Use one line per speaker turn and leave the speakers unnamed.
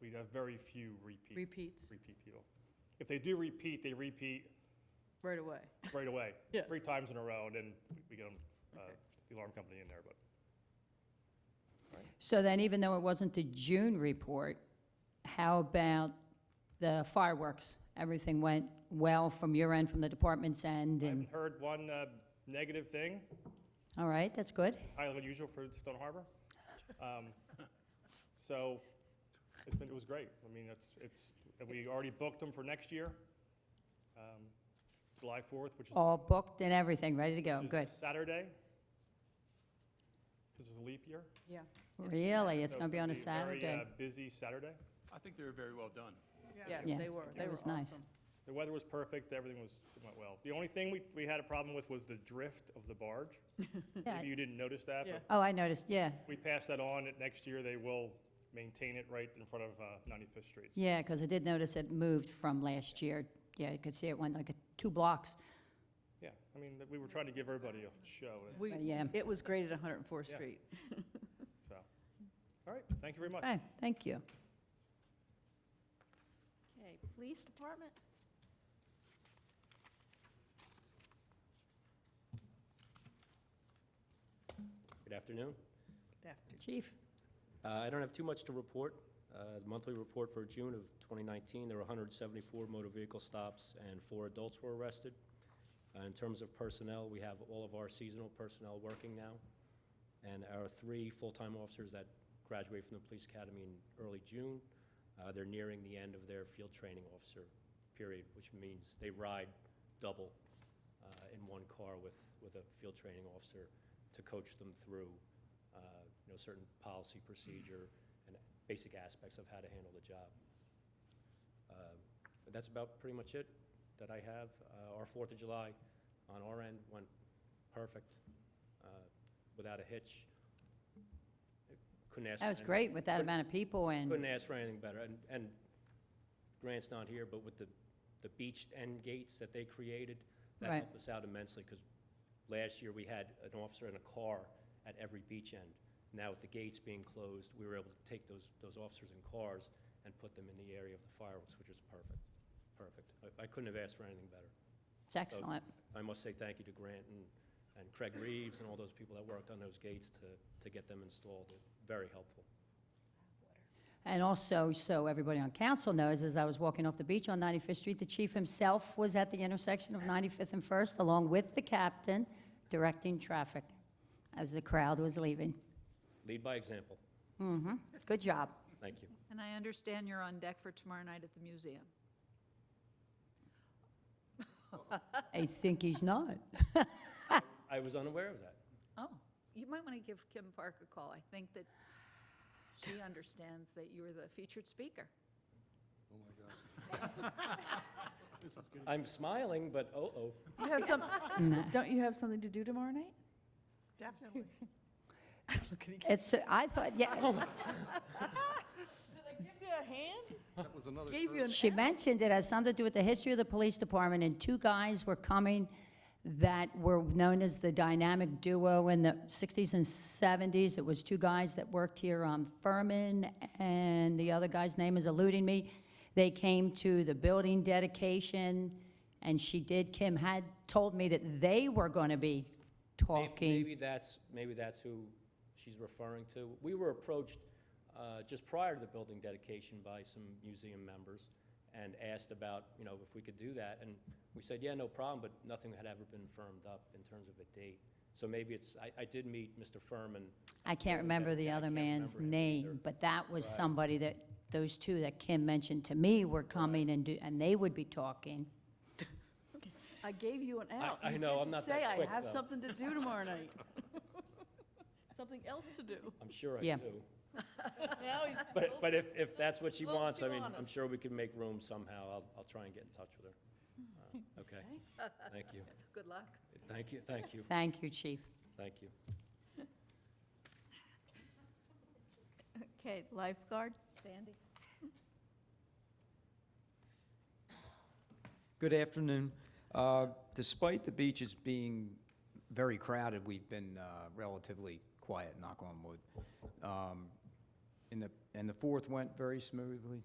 we have very few repeat.
repeats
Repeat people. If they do repeat, they repeat
right away.
right away.
Yeah.
Three times in a row, and then we- we get 'em, uh,
Okay.
the alarm company in there, but.
So then, even though it wasn't the June report, how about the fireworks? Everything went well from your end, from the department's end,
I
and,
haven't heard one uh, negative thing,
all right, that's good.
highly unusual for Stone Harbor. Um, So it's been, it was great. I mean, it's, it's, we already booked them for next year, um, July 4th, which is
All booked and everything, ready to go,
which is
Oh, good.
Saturday. This is a leap year.
Yeah.
Really, it's
so
gonna be on a
gonna be Very
Saturday?
uh, busy Saturday.
I think they were very well done.
Yes,
Yeah.
they were, they
It
were
was nice.
awesome.
The weather was perfect, everything was, it went well. The only thing we, we had a problem with was the drift of the barge.
Yeah.
Maybe you didn't notice that,
Yeah.
but
Oh, I noticed, yeah,
we passed that on, and next year they will maintain it right in front of uh, 95th Street.
yeah, because I did notice it moved from last year. Yeah, you could see it went like a- two blocks,
Yeah, I mean, we were trying to give everybody a show, and
We,
but yeah.
it was great at 104th
Yeah.
Street.
so, all right, thank you very much.
Okay, thank you.
Okay, police department?
Good afternoon.
After-
Chief?
Uh, I don't have too much to report. Uh, The Monthly report for June of 2019, there were 174 motor vehicle stops and four adults were arrested. Uh, In terms of personnel, we have all of our seasonal personnel working now, and our three full-time officers that graduate from the police academy in early June, uh, they're nearing the end of their field training officer period, which means they ride double uh, in one car with, with a field training officer to coach them through, uh, you know, certain policy procedure and basic aspects of how to handle the job. Uh, But that's about pretty much it that I have. Uh, Our Fourth of July on our end went perfect, uh, without a hitch. Couldn't ask.
That
for
was
any-
great with that
couldn't-
amount of people and,
couldn't ask for anything better, and, and Grant's not here, but with the, the beach end gates that they created, that
Right.
helped us out immensely, because last year we had an officer in a car at every beach end. Now with the gates being closed, we were able to take those, those officers in cars and put them in the area of the fireworks, which was perfect, perfect. I, I couldn't have asked for anything better.
it's excellent.
I must say thank you to Grant and, and Craig Reeves and all those people that worked on those gates to, to get them installed, very helpful.
And also, so everybody on council knows, as I was walking off the beach on 95th Street, the chief himself was at the intersection of 95th and First, along with the captain, directing traffic as the crowd was leaving.
Lead by example,
Good job.
thank you.
And I understand you're on deck for tomorrow night at the museum.
I think he's not.
I was unaware of that.
Oh, you might want to give Kim Park a call. I think that she understands that you were the featured speaker.
I'm smiling, but oh-oh.
You have some, don't you have something to do tomorrow night?
Definitely.
It's, I thought, yeah,
Give you a hand?
That was another.
Gave you an
she mentioned it has something to do with the history of the police department, and two guys were coming that were known as the dynamic duo in the 60s and 70s. It was two guys that worked here on Furman, and the other guy's name is eluding me. They came to the building dedication, and she did, Kim had told me that they were going to be
May-
talking.
Maybe that's, maybe that's who she's referring to. We were approached uh, just prior to the building dedication by some museum members and asked about, you know, if we could do that. And we said, yeah, no problem, but nothing had ever been firmed up in terms of a date. So maybe it's, I- I did meet Mr. Furman.
I can't remember the
I
other
can't
man's
remember him either.
name, but that was somebody that, those two that Kim mentioned to me were coming and do, and they would be talking.
I gave you an out.
I
You
know, I'm
didn't
not that
Say
quick,
I have
though.
something to do tomorrow night. Something else to do.
I'm sure I
Yeah.
do.
Now he's.
But, but if, if that's what she
Let's- let's
wants, I
be
mean, I'm
honest.
sure we can make room somehow. I'll, I'll try and get in touch with her. Uh, Okay, thank you.
Good luck.
Thank you, thank you,
Thank you, chief.
thank you.
Okay, lifeguard, Sandy.
Good afternoon. Uh, Despite the beaches being very crowded, we've been uh, relatively quiet, knock on wood. Um, And the, and the fourth went very smoothly.